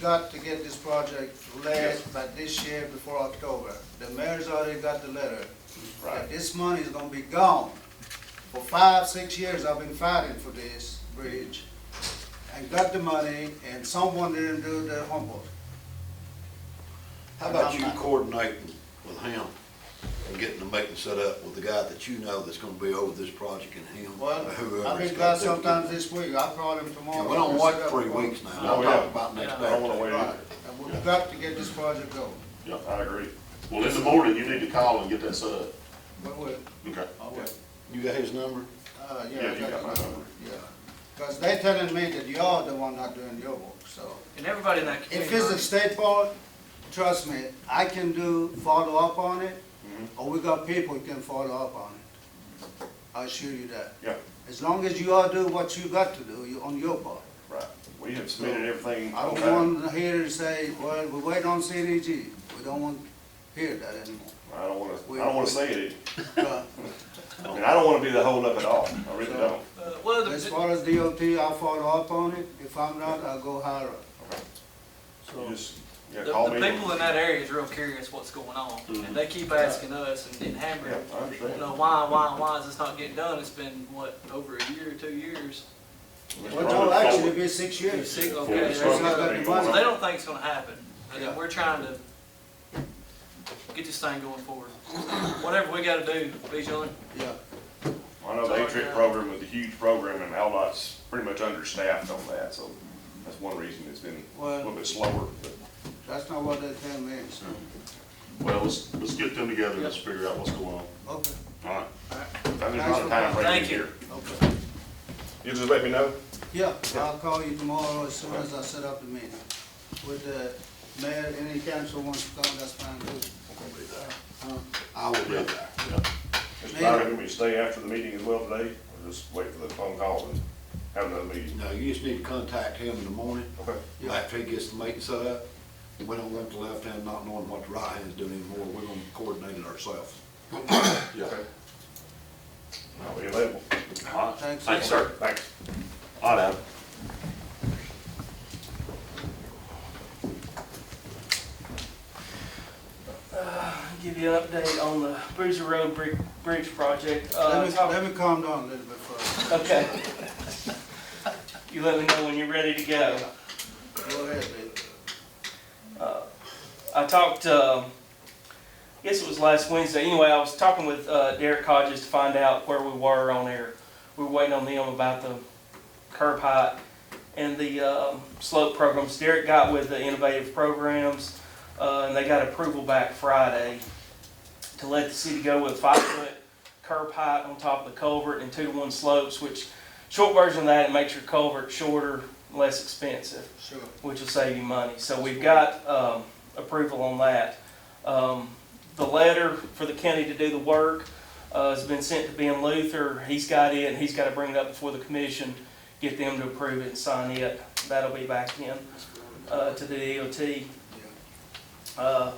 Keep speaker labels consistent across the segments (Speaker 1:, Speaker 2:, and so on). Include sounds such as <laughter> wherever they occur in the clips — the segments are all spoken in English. Speaker 1: got to get this project last, by this year, before October. The mayor's already got the letter.
Speaker 2: Right.
Speaker 1: that This money is gonna be gone. For five, six years, I've been fighting for this bridge, and got the money, and someone didn't do their homework.
Speaker 2: How about you coordinating with him and getting the meeting set up with the guy that you know that's gonna be over this project and him, or <laughs>
Speaker 1: Well,
Speaker 2: whoever.
Speaker 1: I've
Speaker 2: it's
Speaker 1: been glad
Speaker 2: gonna be.
Speaker 1: sometimes this week, I'll call him
Speaker 2: Yeah,
Speaker 1: tomorrow.
Speaker 2: we don't wait three weeks now,
Speaker 3: No,
Speaker 2: I'm
Speaker 3: we
Speaker 2: talking
Speaker 3: haven't.
Speaker 2: about next
Speaker 3: Oh, I don't wanna wait
Speaker 2: Saturday.
Speaker 3: either.
Speaker 1: And we've got to get this project going.
Speaker 3: Yeah, I agree. Well, in the morning, you need to call and get that set up.
Speaker 1: But we,
Speaker 3: Okay.
Speaker 1: I'll wait.
Speaker 2: You got his number?
Speaker 1: Uh, yeah,
Speaker 3: Yeah,
Speaker 1: I
Speaker 3: you got
Speaker 1: got
Speaker 3: my
Speaker 1: it,
Speaker 3: number.
Speaker 1: yeah. Because they telling me that y'all the one not doing your work, so.
Speaker 4: And everybody in that
Speaker 1: If
Speaker 4: community.
Speaker 1: it's a state board, trust me, I can do follow up on it, or we got people who can follow up on it. I assure you that.
Speaker 3: Yeah,
Speaker 1: As long as you all do what you got to do, you, on your part.
Speaker 3: right. We have submitted everything.
Speaker 1: I
Speaker 3: Okay.
Speaker 1: don't want to hear you say, well, we wait on CDG. We don't want to hear that anymore.
Speaker 3: I don't wanna, I don't wanna say it.
Speaker 1: Uh,
Speaker 3: I mean, I don't wanna be the holdup at all. I really don't.
Speaker 4: Uh, Well,
Speaker 1: As
Speaker 4: the-
Speaker 1: far as DOT, I'll follow up on it. If I'm not, I'll go higher up.
Speaker 3: You just, yeah,
Speaker 4: the,
Speaker 3: call
Speaker 4: the
Speaker 3: me.
Speaker 4: people in that area is real curious what's going on,
Speaker 3: Mhm.
Speaker 4: and they keep asking us and then
Speaker 3: Yeah,
Speaker 4: hammering,
Speaker 3: I
Speaker 4: you
Speaker 3: understand.
Speaker 4: know, why, why, why is this not getting done? It's been, what, over a year, two years?
Speaker 1: Well, it'll actually be six years.
Speaker 4: Six,
Speaker 3: Before
Speaker 4: okay,
Speaker 3: we
Speaker 4: there's
Speaker 3: start
Speaker 4: no-
Speaker 3: anything
Speaker 1: Well,
Speaker 4: So
Speaker 3: going
Speaker 4: they
Speaker 3: on.
Speaker 4: don't think it's gonna happen, and
Speaker 1: Yeah.
Speaker 4: then we're trying to get this thing going forward. Whatever we gotta do, be joint.
Speaker 1: Yeah,
Speaker 3: I know the HVIC program was a huge program and Aldot's pretty much understaffed on that, so that's one reason it's been a little
Speaker 1: well,
Speaker 3: bit slower. but-
Speaker 1: that's not what they tell me, so,
Speaker 3: Well, let's, let's get them together and let's figure out what's going on.
Speaker 1: okay,
Speaker 3: All right.
Speaker 1: Alright.
Speaker 3: There's not a time frame
Speaker 4: Thank you.
Speaker 3: here.
Speaker 1: okay.
Speaker 3: You just let me know?
Speaker 1: Yeah, I'll call you tomorrow as soon as I set up the meeting. With the mayor, any council wants to come, that's fine too. Uh,
Speaker 2: I will be there.
Speaker 3: Mr.
Speaker 1: Mayor.
Speaker 3: Byron, can we stay after the meeting as well today, or just wait for the phone call and have another meeting?
Speaker 2: No, you just need to contact him in the morning,
Speaker 3: Okay.
Speaker 1: Yeah.
Speaker 2: after he gets the meeting set up. We don't let the left hand not knowing what the right hand's doing anymore, we're gonna coordinate it ourselves.
Speaker 3: Yeah. I'll be available.
Speaker 1: Thanks.
Speaker 3: Thanks, sir. Thanks. All right.
Speaker 5: give you an update on the Bruiser Road Bri- Bridge project. Uh,
Speaker 1: Let me,
Speaker 5: top-
Speaker 1: let me calm down a little bit first.
Speaker 5: Okay. You let me know when you're ready to go.
Speaker 1: Go ahead, Bill.
Speaker 5: Uh, I talked, um, I guess it was last Wednesday, anyway, I was talking with uh, Derek Hodges to find out where we were on there. We were waiting on them about the curb height and the um, slope programs. Derek got with the innovative programs, uh, and they got approval back Friday to let the city go with five-foot curb height on top of the culvert and two-to-one slopes, which, short version of that, it makes your culvert shorter, less expensive
Speaker 1: Sure.
Speaker 5: which will save you money. So we've got um, approval on that. Um, The letter for the county to do the work uh, has been sent to Ben Luther. He's got it, and he's got to bring it up before the commission, get them to approve it and sign it. That'll be back in uh, to the DOT.
Speaker 1: Yeah.
Speaker 5: Uh,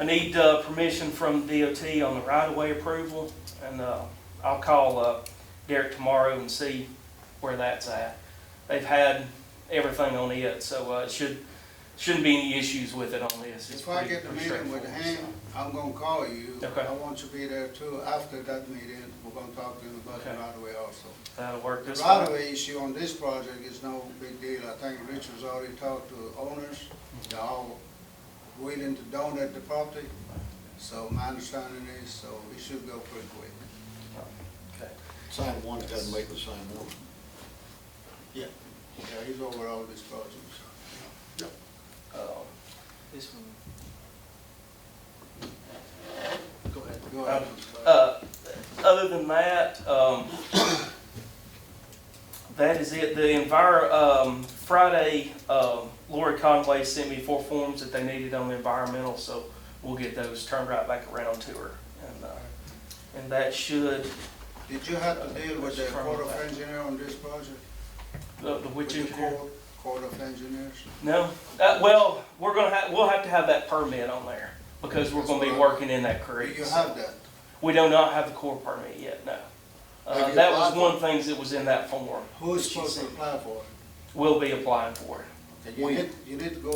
Speaker 5: I need uh, permission from DOT on the right-of-way approval, and uh, I'll call uh, Derek tomorrow and see where that's at. They've had everything on it, so uh, it should, shouldn't be any issues with it on this. It's
Speaker 1: If I
Speaker 5: pretty-
Speaker 1: get the
Speaker 5: pretty
Speaker 1: meeting with
Speaker 5: straightforward,
Speaker 1: him, I'm gonna call you.
Speaker 5: Okay.
Speaker 1: I want you to be there too. After that meeting, we're gonna talk to him about the
Speaker 5: Okay.
Speaker 1: right away also.
Speaker 5: so That'll work
Speaker 1: The
Speaker 5: this
Speaker 1: right
Speaker 5: time.
Speaker 1: of way issue on this project is no big deal. I think Richard's already talked to the owners.
Speaker 5: Mm-hmm.
Speaker 1: They're all willing to donate the property. So my understanding is, so it should go pretty quick.
Speaker 2: Same one, it doesn't make the same one.
Speaker 1: Yeah, he's over all these projects.
Speaker 5: Uh,
Speaker 4: This one. Go ahead.
Speaker 1: Go ahead.
Speaker 5: uh, Other than that, um, <coughs> that is it. The envir, um, Friday, um, Lori Conway sent me four forms that they needed on the environmental, so we'll get those turned right back around to her. And, uh, and that should,
Speaker 1: Did you have to deal with the
Speaker 5: From
Speaker 1: Corps of
Speaker 5: that.
Speaker 1: Engineer on this project?
Speaker 5: uh, the, the which
Speaker 1: With the
Speaker 5: engineer?
Speaker 1: Corps- Corps of Engineers?
Speaker 5: No, uh, well, we're gonna have, we'll have to have that permit on there because we're gonna be working in that
Speaker 1: Do
Speaker 5: creek.
Speaker 1: you have that?
Speaker 5: We do not have the core permit yet, no.
Speaker 1: Have
Speaker 5: Uh,
Speaker 1: you
Speaker 5: that was
Speaker 1: applied for
Speaker 5: one of the things that was in that form.
Speaker 1: Who is
Speaker 5: that she
Speaker 1: supposed to
Speaker 5: sent.
Speaker 1: apply for it?
Speaker 5: We'll be applying for it.
Speaker 1: You need, you need to go